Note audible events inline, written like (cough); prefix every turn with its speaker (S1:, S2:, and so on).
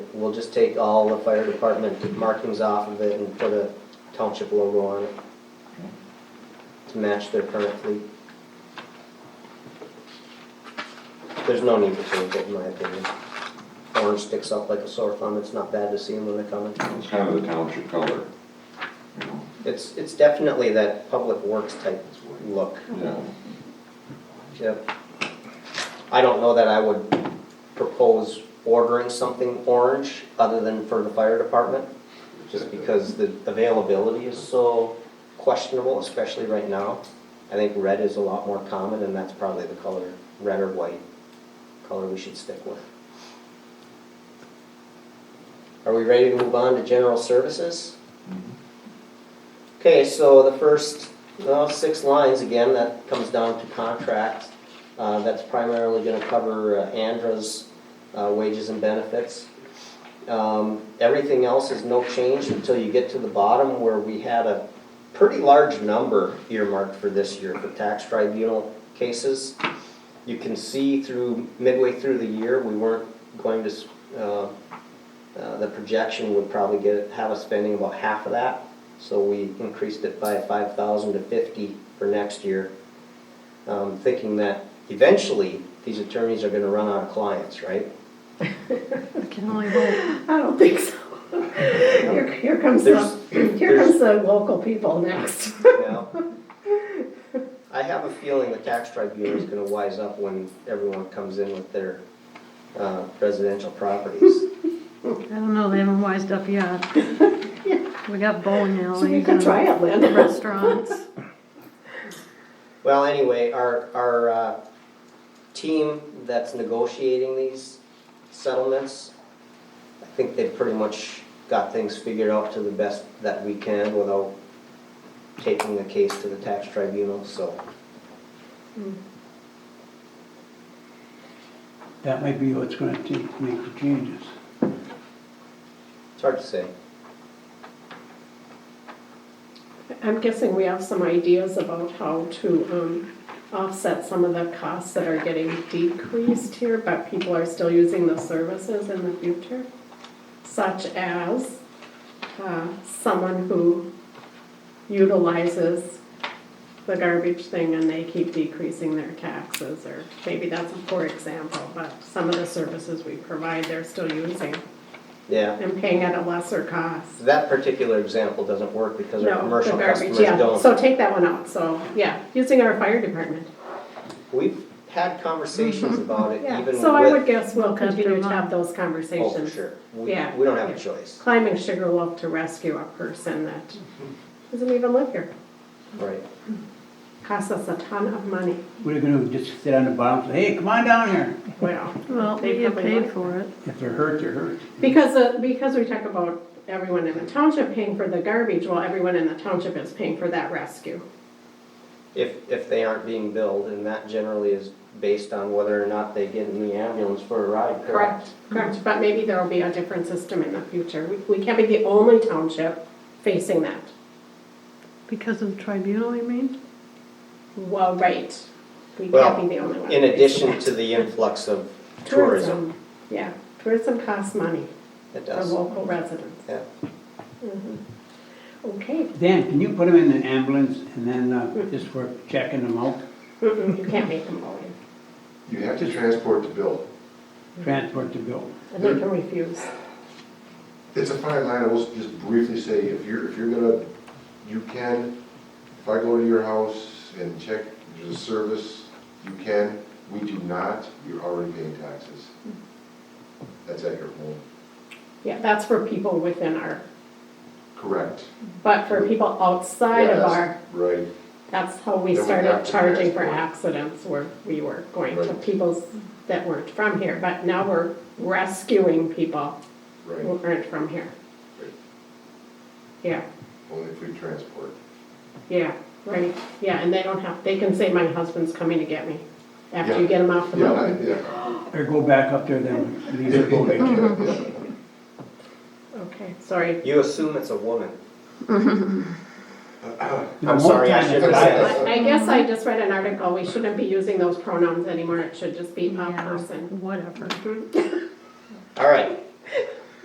S1: we'll just take all the fire department markings off of it and put a township logo on it to match their current fleet. There's no need to change it, in my opinion. Orange sticks up like a sore thumb, it's not bad to see them when they're coming.
S2: It's kind of the township color, you know,
S1: It's, it's definitely that public works type look,
S2: yeah.
S1: yep. I don't know that I would propose ordering something orange other than for the fire department, just because the availability is so questionable, especially right now. I think red is a lot more common, and that's probably the color, red or white, color we should stick with. Are we ready to move on to general services?
S2: Mm-hmm.
S1: Okay, so the first, well, six lines again, that comes down to contract. Uh, That's primarily gonna cover uh, Andra's uh, wages and benefits. Um, Everything else is no change until you get to the bottom where we had a pretty large number earmarked for this year for tax tribunal cases. You can see through, midway through the year, we weren't going to, s- uh, uh, the projection would probably get, have us spending about half of that. So we increased it by five thousand to fifty for next year, um, thinking that eventually these attorneys are gonna run out of clients, right?
S3: Can only hope.
S4: I don't think
S1: (laughs)
S4: so. Here, here comes the,
S1: There's-
S4: here comes the local people next.
S1: Now, I have a feeling the tax tribunal is gonna wise up when everyone comes in with their, uh, residential properties.
S3: I don't know, they haven't wised up yet. We got bowling
S4: So you
S3: alleys
S4: can
S3: and
S4: try it, Lynn. (laughs)
S3: restaurants.
S1: Well, anyway, our, our, uh, team that's negotiating these settlements, I think they've pretty much got things figured out to the best that we can without taking the case to the tax tribunal, so.
S5: That might be what's gonna take to make the changes.
S1: It's hard to say.
S4: I'm guessing we have some ideas about how to, um, offset some of the costs that are getting decreased here, but people are still using the services in the future, such as, uh, someone who utilizes the garbage thing and they keep decreasing their taxes, or maybe that's a poor example, but some of the services we provide, they're still using
S1: Yeah,
S4: and paying at a lesser cost.
S1: that particular example doesn't work because our
S4: No, the
S1: commercial
S4: garbage,
S1: customers
S4: yeah,
S1: don't.
S4: so take that one out, so, yeah, using our fire department.
S1: We've had conversations about it
S4: Mm-hmm. Yeah,
S1: even with.
S4: so I would guess we'll
S3: Look after
S4: continue to
S3: mine.
S4: have those
S1: Oh,
S4: conversations.
S1: for sure. We,
S4: Yeah.
S1: we don't have a
S4: Yeah.
S1: choice.
S4: Climbing Sugarloaf to rescue a person that doesn't even live here,
S1: Right.
S4: costs us a ton of money,
S5: We're gonna just sit on the bottom, and say, hey, come on down here.
S4: well.
S3: Well,
S4: they
S3: we get
S4: probably
S3: paid
S4: like-
S3: for it.
S5: If they're hurt, they're hurt.
S4: Because, uh, because we talk about everyone in the township paying for the garbage, well, everyone in the township is paying for that rescue.
S1: if, if they aren't being billed, and that generally is based on whether or not they get in the ambulance for a ride, correct?
S4: Correct, but maybe there'll be a different system in the future. We- We can't be the only township facing that.
S3: Because of the tribunal, you mean?
S4: Well, right, we
S1: Well,
S4: can't be the only one.
S1: In
S4: facing
S1: addition
S4: that.
S1: to the influx of tourism,
S4: Yeah, tourism costs money
S1: it
S4: for
S1: does,
S4: local residents.
S1: yeah.
S4: Okay,
S5: Dan, can you put them in an ambulance and then, uh, just work checking them out,
S4: Mm-mm, you can't make them go in,
S6: You have to transport the bill.
S5: transport the bill?
S4: and they can refuse.
S6: It's a fine line, I will just briefly say, if you're, if you're gonna, you can, if I go to your house and check the service, you can, we do not, you're already paying taxes. That's at your home,
S4: Yeah, that's for people within our,
S6: correct.
S4: but for people outside of
S6: Yeah, that's
S4: our,
S6: Right,
S4: that's how we
S6: Then we have
S4: started
S6: to
S4: charging for
S6: transport.
S4: accidents where we were going to
S6: Right.
S4: people that weren't from here. But now we're rescuing people who
S6: right,
S4: aren't from here.
S6: Right.
S4: Yeah.
S6: only if we transport.
S4: Yeah, right, yeah, and they don't have, they can say, my husband's coming to get me, after you
S6: Yeah.
S4: get him off the
S6: Yeah,
S4: boat.
S6: I- yeah.
S5: Or go back up there then, leave
S1: (laughs)
S5: it going.
S4: Okay, sorry,
S1: You assume it's a woman.
S5: You know,
S1: I'm
S5: most
S1: sorry, I
S5: times
S1: should have
S5: it's-
S1: said that.
S4: I I guess I just read an article, we shouldn't be using those pronouns anymore, it should just be a
S3: Yeah,
S4: person.
S3: Whatever.
S1: All right,